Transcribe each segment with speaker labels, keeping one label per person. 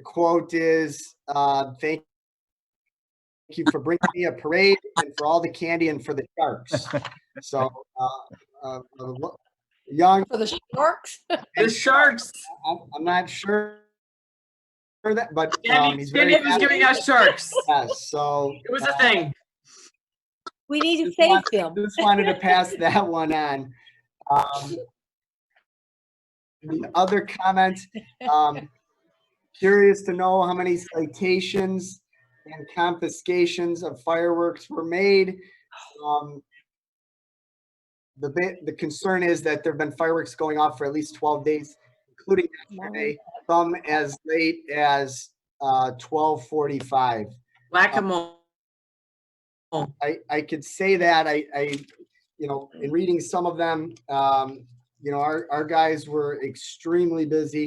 Speaker 1: The quote is, uh, thank you for bringing me a parade and for all the candy and for the sharks. So, uh, uh, a lo- young,
Speaker 2: For the sharks?
Speaker 3: The sharks.
Speaker 1: I'm, I'm not sure for that, but, um,
Speaker 3: Danny
Speaker 1: he's very
Speaker 3: Danny was giving
Speaker 1: happy.
Speaker 3: us sharks.
Speaker 1: Yes, so.
Speaker 3: It was a
Speaker 1: uh,
Speaker 3: thing.
Speaker 2: We need to
Speaker 1: Just one-
Speaker 2: save them.
Speaker 1: Just wanted to pass that one on. Um, The other comment, um, curious to know how many citations and confiscations of fireworks were made. Um, The, ba- the concern is that there've been fireworks going off for at least 12 days, including yesterday, some as late as uh, 12:45. Um,
Speaker 3: Whack-a-mole.
Speaker 1: I, I could say that, I, I, you know, in reading some of them, um, you know, our, our guys were extremely busy.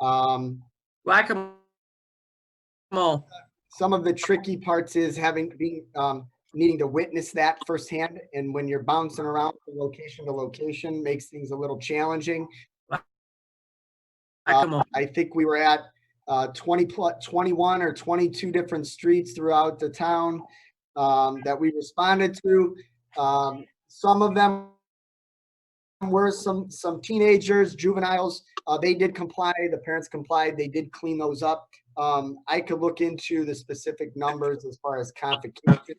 Speaker 1: Um,
Speaker 3: Whack-a-mole.
Speaker 1: some of the tricky parts is having, being, um, needing to witness that firsthand. And when you're bouncing around from location to location, makes things a little challenging.
Speaker 3: Whack-a-mole.
Speaker 1: I think we were at uh, 20 plus 21 or 22 different streets throughout the town um, that we responded to. Um, some of them were some some teenagers, juveniles. Uh, they did comply. The parents complied. They did clean those up. Um, I could look into the specific numbers as far as Um, confiscation.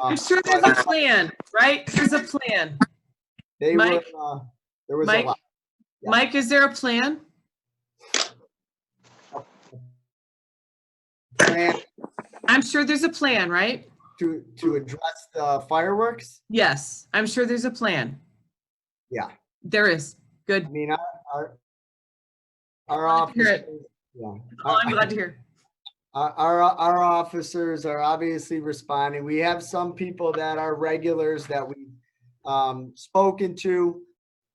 Speaker 3: I'm sure there's a plan, right? There's a plan.
Speaker 1: They were,
Speaker 3: Mike?
Speaker 1: uh, there was a
Speaker 3: Mike?
Speaker 1: lot. Yeah.
Speaker 3: Mike, is there a plan?
Speaker 1: Plan
Speaker 3: I'm sure there's a plan, right?
Speaker 1: To, to address the fireworks.
Speaker 3: Yes, I'm sure there's a plan.
Speaker 1: Yeah.
Speaker 3: There is. Good.
Speaker 1: I mean, our, our, our
Speaker 3: Glad to hear
Speaker 1: officers,
Speaker 3: it.
Speaker 1: yeah.
Speaker 3: Oh, I'm
Speaker 1: Our-
Speaker 3: glad to hear.
Speaker 1: Our, our, our officers are obviously responding. We have some people that are regulars that we, um, spoken to,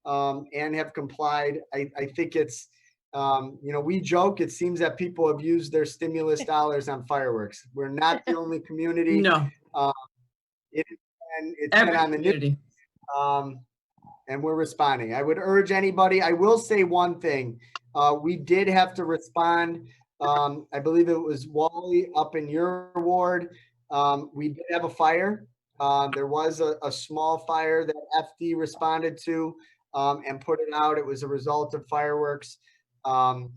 Speaker 1: um, and have complied. I, I think it's, um, you know, we joke, it seems that people have used their stimulus dollars on fireworks. We're not the only community.
Speaker 3: No,
Speaker 1: And it's
Speaker 3: every
Speaker 1: been on the news.
Speaker 3: community.
Speaker 1: Um, and we're responding. I would urge anybody, I will say one thing. Uh, we did have to respond. Um, I believe it was Wally up in your ward. Um, we did have a fire. Uh, there was a, a small fire that FD responded to, um, and put it out. It was a result of fireworks. Um,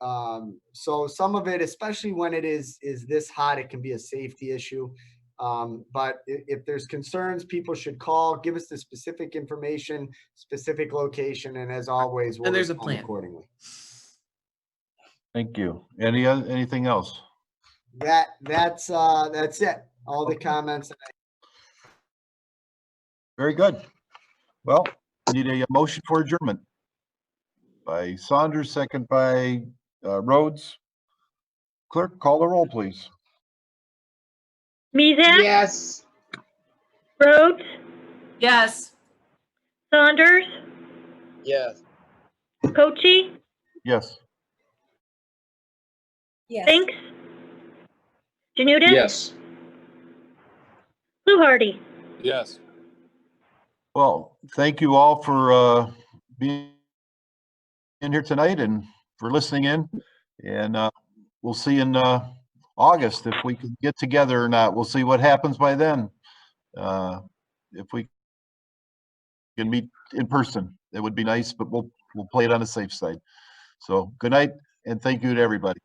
Speaker 1: um, so some of it, especially when it is, is this hot, it can be a safety issue. Um, but i- if there's concerns, people should call, give us the specific information, specific location, and as always, we'll
Speaker 3: And there's a
Speaker 1: respond
Speaker 3: plan.
Speaker 1: accordingly.
Speaker 4: Thank you. Any, oth- anything else?
Speaker 1: That, that's, uh, that's it. All the comments.
Speaker 4: Very good. Well, we need a motion for adjournment. By Saunders, second by uh, Rhodes. Clerk, call the roll, please.
Speaker 5: Mizek,
Speaker 6: Yes.
Speaker 5: Rhodes,
Speaker 3: Yes.
Speaker 5: Saunders,
Speaker 6: Yes.
Speaker 5: Cochi,
Speaker 4: Yes.
Speaker 2: Yes.
Speaker 5: Spinks, Janudis,
Speaker 6: Yes.
Speaker 5: Fluharty.
Speaker 6: Yes.
Speaker 4: Well, thank you all for uh, being in here tonight and for listening in. And uh, we'll see in uh, August if we can get together or not. We'll see what happens by then. Uh, If we can meet in person, it would be nice, but we'll, we'll play it on the safe side. So good night and thank you to everybody.